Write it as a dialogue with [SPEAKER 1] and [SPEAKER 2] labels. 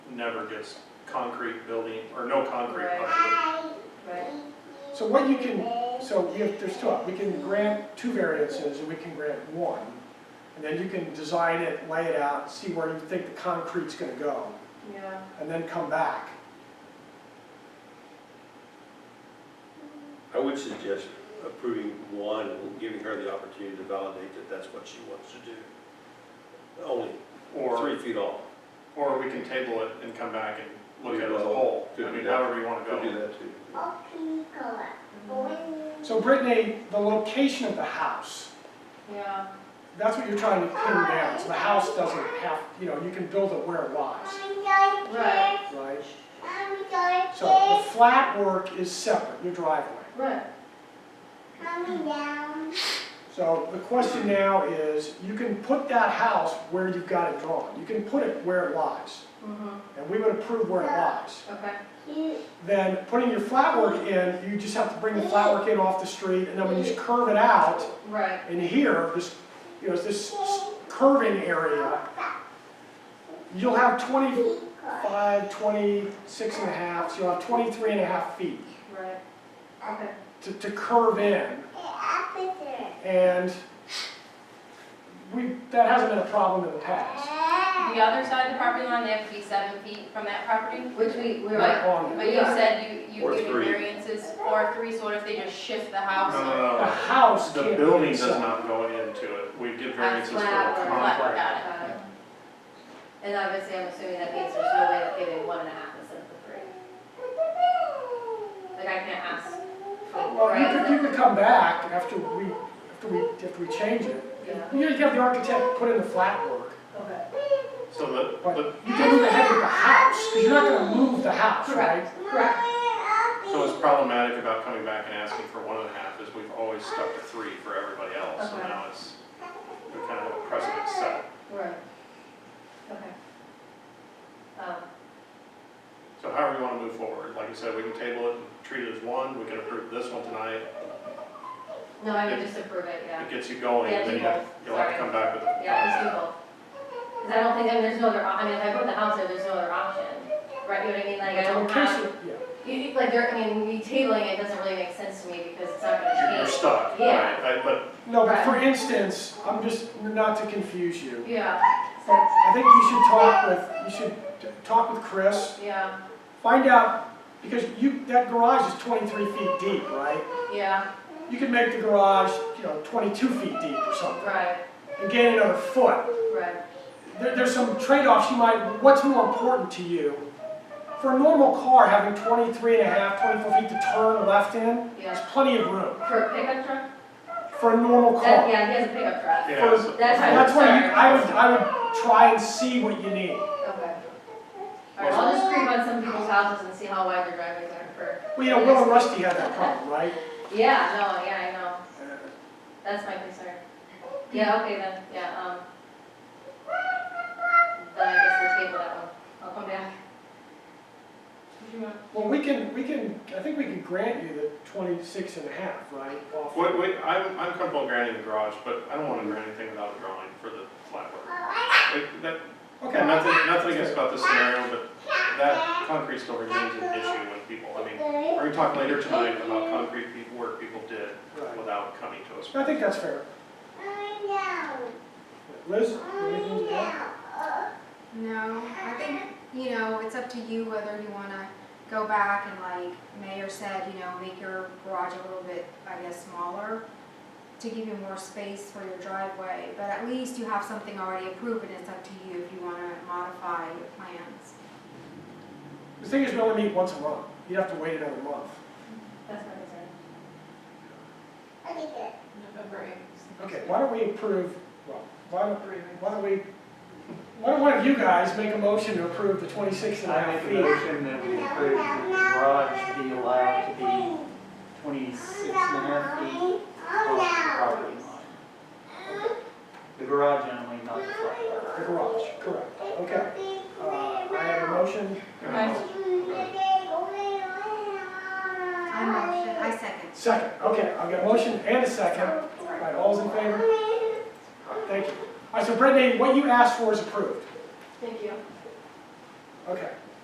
[SPEAKER 1] never gets concrete building, or no concrete.
[SPEAKER 2] Right.
[SPEAKER 1] possibly.
[SPEAKER 2] Right,
[SPEAKER 3] So what you can, so we have, there's two, we can grant two variances, and we can grant one. And then you can design it, lay it out, see where you think the concrete's gonna go,
[SPEAKER 2] yeah.
[SPEAKER 3] and then come back.
[SPEAKER 4] I would suggest approving one and giving her the opportunity to validate that that's what she wants to do. Only
[SPEAKER 1] Or,
[SPEAKER 4] three feet off.
[SPEAKER 1] or we can table it and come back and look at it as a
[SPEAKER 4] Well,
[SPEAKER 1] whole,
[SPEAKER 4] could
[SPEAKER 1] I
[SPEAKER 4] do
[SPEAKER 1] mean,
[SPEAKER 4] that.
[SPEAKER 1] however you wanna
[SPEAKER 4] Could do
[SPEAKER 1] go.
[SPEAKER 4] that too.
[SPEAKER 2] Mhm.
[SPEAKER 3] So Brittany, the location of the house,
[SPEAKER 2] Mm-hmm. Yeah,
[SPEAKER 3] that's what you're trying to pin down, so the house doesn't have, you know, you can build it where it lies,
[SPEAKER 2] right,
[SPEAKER 3] right? So the flat work is separate, your driveway.
[SPEAKER 2] right,
[SPEAKER 3] So the question now is, you can put that house where you've got it drawn, you can put it where it lies,
[SPEAKER 2] hmm
[SPEAKER 3] and we would approve where it lies.
[SPEAKER 2] okay,
[SPEAKER 3] Then putting your flat work in, you just have to bring the flat work in off the street, and then when you curve it out,
[SPEAKER 2] right,
[SPEAKER 3] in here, this, you know, this curving area, you'll have 25, 26 and a half, so you'll have 23 and a half feet
[SPEAKER 2] right, okay,
[SPEAKER 3] to, to curve in, and we, that hasn't been a problem in the past.
[SPEAKER 5] The other side of the property line, they have to be seven feet from that property.
[SPEAKER 2] which we, we
[SPEAKER 5] Right.
[SPEAKER 2] were,
[SPEAKER 3] On
[SPEAKER 5] But you said you,
[SPEAKER 4] Or
[SPEAKER 5] you give
[SPEAKER 4] three.
[SPEAKER 5] variances or three, so what if they just shift the
[SPEAKER 1] No,
[SPEAKER 5] house?
[SPEAKER 1] no,
[SPEAKER 3] The
[SPEAKER 1] no,
[SPEAKER 3] house
[SPEAKER 1] the
[SPEAKER 3] can't be
[SPEAKER 1] building does
[SPEAKER 3] inside.
[SPEAKER 1] not go into it, we give
[SPEAKER 5] That's
[SPEAKER 1] variances for
[SPEAKER 5] what
[SPEAKER 1] the
[SPEAKER 2] flat or
[SPEAKER 5] I,
[SPEAKER 1] concrete.
[SPEAKER 5] got it.
[SPEAKER 2] uh, and obviously I'm assuming that means there's no way of giving one and a half instead of the three. Like I can't ask for,
[SPEAKER 3] Oh, Well, you could, you
[SPEAKER 2] right,
[SPEAKER 3] could come back after we, after we, after we change it.
[SPEAKER 2] Yeah.
[SPEAKER 3] You could have the architect put in the flat work,
[SPEAKER 2] okay,
[SPEAKER 1] So the,
[SPEAKER 3] but
[SPEAKER 1] the,
[SPEAKER 3] you can move ahead with the house, because you're not gonna move the house, right?
[SPEAKER 2] correct, correct,
[SPEAKER 1] so what's problematic about coming back and asking for one and a half is we've always stuck to three for everybody else, so
[SPEAKER 2] Okay.
[SPEAKER 1] now it's, we kind of have a precedent set.
[SPEAKER 2] right, okay. Um,
[SPEAKER 1] So however you want to move forward, like I said, we can table it, and treat it as one, we can approve this one tonight,
[SPEAKER 2] no, I would just approve it, yeah.
[SPEAKER 1] it gets you going,
[SPEAKER 2] Yeah,
[SPEAKER 1] then
[SPEAKER 2] do
[SPEAKER 1] you have,
[SPEAKER 2] both.
[SPEAKER 1] you'll have to come back with.
[SPEAKER 2] Yeah, let's do both. Cause I don't think, I mean, there's no other, op- I mean, if I put the house there, there's no other option, right, you know what I mean, like, I
[SPEAKER 3] So in
[SPEAKER 2] don't
[SPEAKER 3] case
[SPEAKER 2] have,
[SPEAKER 3] you- yeah.
[SPEAKER 2] you, you- like, there, I mean, me tabling it doesn't really make sense to me because it's not
[SPEAKER 1] You're
[SPEAKER 2] gonna
[SPEAKER 1] you're
[SPEAKER 2] change.
[SPEAKER 1] stuck,
[SPEAKER 2] Yeah.
[SPEAKER 1] right, I- but
[SPEAKER 3] No, but for instance, I'm just, not to confuse you,
[SPEAKER 2] Yeah,
[SPEAKER 3] but I think you should talk with, you should t- talk with Chris,
[SPEAKER 2] yeah,
[SPEAKER 3] find out, because you, that garage is twenty-three feet deep, right?
[SPEAKER 2] yeah,
[SPEAKER 3] You could make the garage, you know, twenty-two feet deep or something,
[SPEAKER 2] right,
[SPEAKER 3] and gain another foot.
[SPEAKER 2] right,
[SPEAKER 3] There, there's some trade-offs you might, what's more important to you? For a normal car, having 23 and a half, 24 feet to turn left in, there's
[SPEAKER 2] yeah.
[SPEAKER 3] plenty of room
[SPEAKER 2] For a pickup truck?
[SPEAKER 3] for a normal
[SPEAKER 2] That,
[SPEAKER 3] car.
[SPEAKER 2] yeah, he has a pickup truck.
[SPEAKER 1] yeah,
[SPEAKER 3] For-
[SPEAKER 1] so-
[SPEAKER 2] That's
[SPEAKER 3] So
[SPEAKER 2] my
[SPEAKER 3] That's why you,
[SPEAKER 2] concern.
[SPEAKER 3] I would, I would try and see what you need.
[SPEAKER 2] Okay. Alright, I'll just creep on some people's houses and see how wide their driveways are for,
[SPEAKER 3] Well, you know, Will and Rusty had that problem, right? Uh,
[SPEAKER 2] yeah, no, yeah, I know, that's my concern. Yeah, okay then, yeah, um. Then I guess we'll table that one, I'll come back. Did you want?
[SPEAKER 3] Well, we can, we can, I think we can grant you the 26 and a half, right? off-
[SPEAKER 1] Wait, wait, I'm, I'm comfortable granting the garage, but I don't want to grant anything without a drawing for the flat work. It- That,
[SPEAKER 3] Okay,
[SPEAKER 1] nothing, nothing against about this scenario, but that concrete still remains an issue with people, I mean, we're gonna talk later tonight about concrete pe- work people did
[SPEAKER 3] right.
[SPEAKER 1] without coming to us.
[SPEAKER 3] I think that's fair. Liz? anything to add?
[SPEAKER 6] No, I think, you know, it's up to you whether you wanna go back and like Mayor said, you know, make your garage a little bit, I guess, smaller to give you more space for your driveway, but at least you have something already approved and it's up to you if you wanna modify your plans.
[SPEAKER 3] The thing is, we only meet once a month. You'd have to wait another month.
[SPEAKER 2] That's my concern.
[SPEAKER 5] November
[SPEAKER 3] Okay, why don't we approve, well, why don't, why don't we, why don't one of you guys make a motion to approve the 26 and a
[SPEAKER 7] I
[SPEAKER 3] half
[SPEAKER 7] make a
[SPEAKER 3] feet?
[SPEAKER 7] motion that we approve the garage to be allowed to be twenty-six and a half feet off the property line. The garage only, not the front.
[SPEAKER 3] The garage, correct, okay. Uh, I have a motion,
[SPEAKER 5] Okay.
[SPEAKER 6] I motion, I second.
[SPEAKER 3] second, okay, I've got a motion and a second. All right, all's in favor? Thank you. All right, so Brittany, what you asked for is approved.
[SPEAKER 2] Thank you.
[SPEAKER 3] Okay.